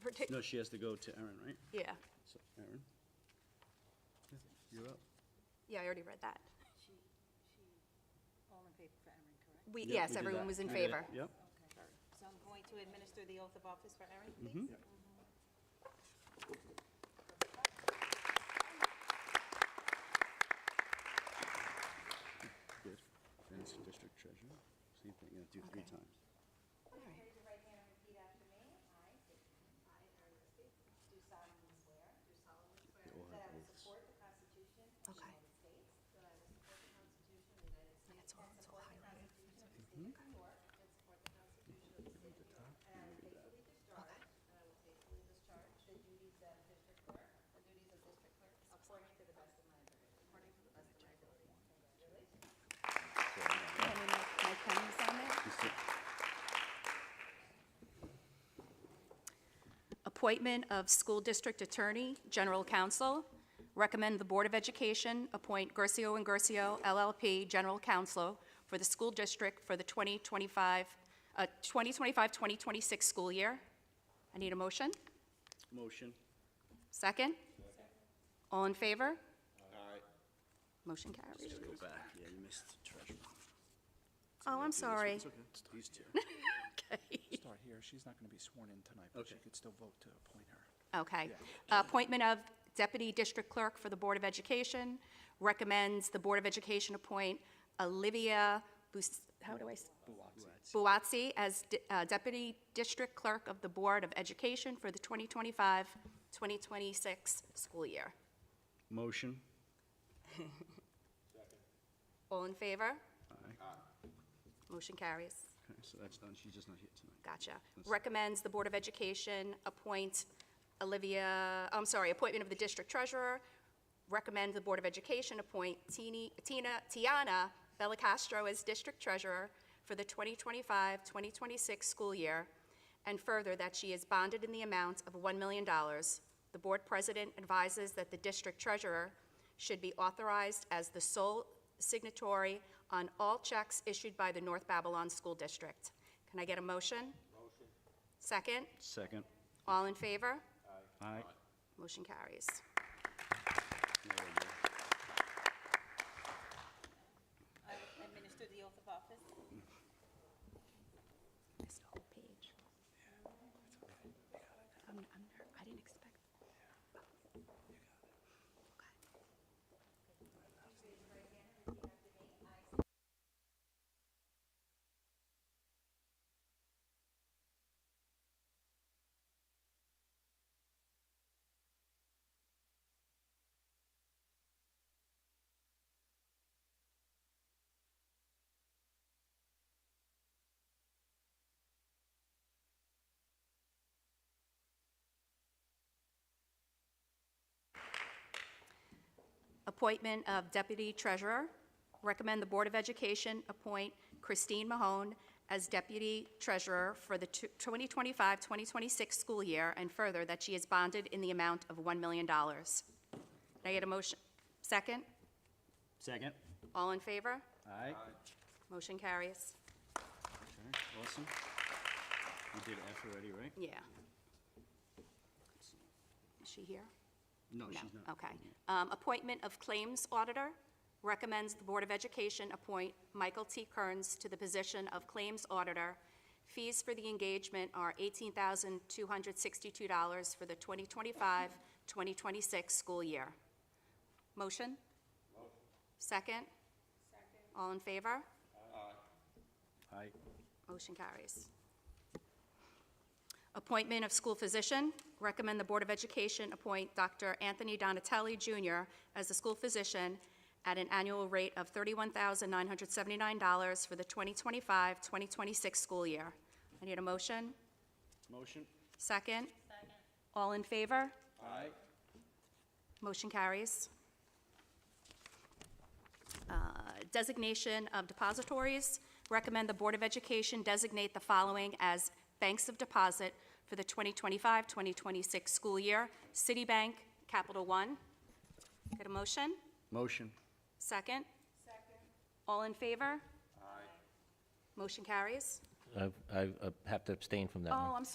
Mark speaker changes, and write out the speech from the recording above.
Speaker 1: partic,
Speaker 2: No, she has to go to Erin, right?
Speaker 1: yeah,
Speaker 2: So, Erin? Yeah, You're up.
Speaker 1: yeah, I already read that.
Speaker 3: She, she, all in favor for Erin, correct?
Speaker 1: We,
Speaker 2: Yep, we
Speaker 1: yes,
Speaker 2: did
Speaker 1: everyone
Speaker 2: that.
Speaker 1: was in
Speaker 2: We did it.
Speaker 1: favor.
Speaker 2: Yep.
Speaker 3: Okay. So I'm going to administer the oath of office for Erin, please.
Speaker 2: Good. Finance District Treasurer. See if they, yeah, do three
Speaker 1: Okay.
Speaker 2: times.
Speaker 3: Raise your right hand and repeat after me. I state your name. I, Erin Liskey. Do solemnly swear. Do solemnly swear.
Speaker 2: The Ohio
Speaker 3: That I will
Speaker 2: Police.
Speaker 3: support the Constitution of the
Speaker 1: Okay.
Speaker 3: United States. That I will support the Constitution of the United States.
Speaker 1: it's all-
Speaker 3: and
Speaker 1: it's all
Speaker 3: support the
Speaker 1: highlighted.
Speaker 3: Constitution of the State of New York. And support the Constitution of the State of New York. And I will faithfully discharge. And I will faithfully discharge. The duties of district clerk. The duties of district clerk. According to the best of my ability. According to the best of my ability. Congratulations.
Speaker 1: Can we make- my pen is on it?
Speaker 2: Just sit.
Speaker 1: Appointment of School District Attorney, General Counsel. Recommend the Board of Education appoint Gercio and Gercio LLP General Counsel for the school district for the 2025, uh, 2025-2026 school year. I need a motion?
Speaker 2: Motion.
Speaker 1: Second? All in favor? Aye. Motion carries.
Speaker 2: Go back. Yeah, you missed the treasurer.
Speaker 1: Oh, I'm sorry.
Speaker 4: It's okay. It's-
Speaker 2: These two.
Speaker 4: Start here. She's not going to be sworn in tonight, but she
Speaker 2: Okay.
Speaker 4: could still vote to appoint her.
Speaker 1: Okay. Appointment of Deputy District Clerk for the Board of Education. Recommends the Board of Education appoint Olivia Bus, how do I? s- Buatsi as di- uh, Deputy District Clerk of the Board of Education for the 2025-2026 school year.
Speaker 2: Motion.
Speaker 1: All in favor?
Speaker 2: Aye.
Speaker 1: Motion carries.
Speaker 2: Okay, so that's done. She's just not here tonight.
Speaker 1: Gotcha. Recommends the Board of Education appoint Olivia, I'm sorry, appointment of the district treasurer. Recommend the Board of Education appoint Tini- Tina, Tiana Bellicastro as district treasurer for the 2025-2026 school year. And further, that she is bonded in the amount of $1 million. The board president advises that the district treasurer should be authorized as the sole signatory on all checks issued by the North Babylon School District. Can I get a motion? Motion. Second?
Speaker 2: Second.
Speaker 1: All in favor?
Speaker 2: Aye.
Speaker 1: Motion carries.
Speaker 3: I will administer the oath of office.
Speaker 1: Missed a whole page. I'm, I'm, ner- I didn't expect. Appointment of Deputy Treasurer. Recommend the Board of Education appoint Christine Mahone as Deputy Treasurer for the two- 2025-2026 school year, and further, that she is bonded in the amount of $1 million. Can I get a motion? Second?
Speaker 2: Second.
Speaker 1: All in favor?
Speaker 2: Aye.
Speaker 1: Motion carries.
Speaker 2: Okay, awesome. You did F already, right?
Speaker 1: Yeah. Is she here?
Speaker 2: No,
Speaker 1: No,
Speaker 2: she's not.
Speaker 1: okay. Um, Appointment of Claims Auditor. Recommends the Board of Education appoint Michael T. Kearns to the position of Claims Auditor. Fees for the engagement are $18,262 for the 2025-2026 school year. Motion? Motion. Second? Second. All in favor? Oh.
Speaker 2: Aye.
Speaker 1: Motion carries. Appointment of school physician. Recommend the Board of Education appoint Dr. Anthony Donatelli Jr. as the school physician at an annual rate of $31,979 for the 2025-2026 school year. I need a motion.
Speaker 2: Motion.
Speaker 1: Second? Second. All in favor?
Speaker 2: Aye.
Speaker 1: Motion carries. Uh, Designation of depositories. Recommend the Board of Education designate the following as banks of deposit for the 2025-2026 school year. Citibank, Capital One. Get a motion?
Speaker 2: Motion.
Speaker 1: Second? Second. All in favor? Aye. Motion carries.
Speaker 5: I I, uh, have to abstain from that one.
Speaker 1: Oh, I'm sorry.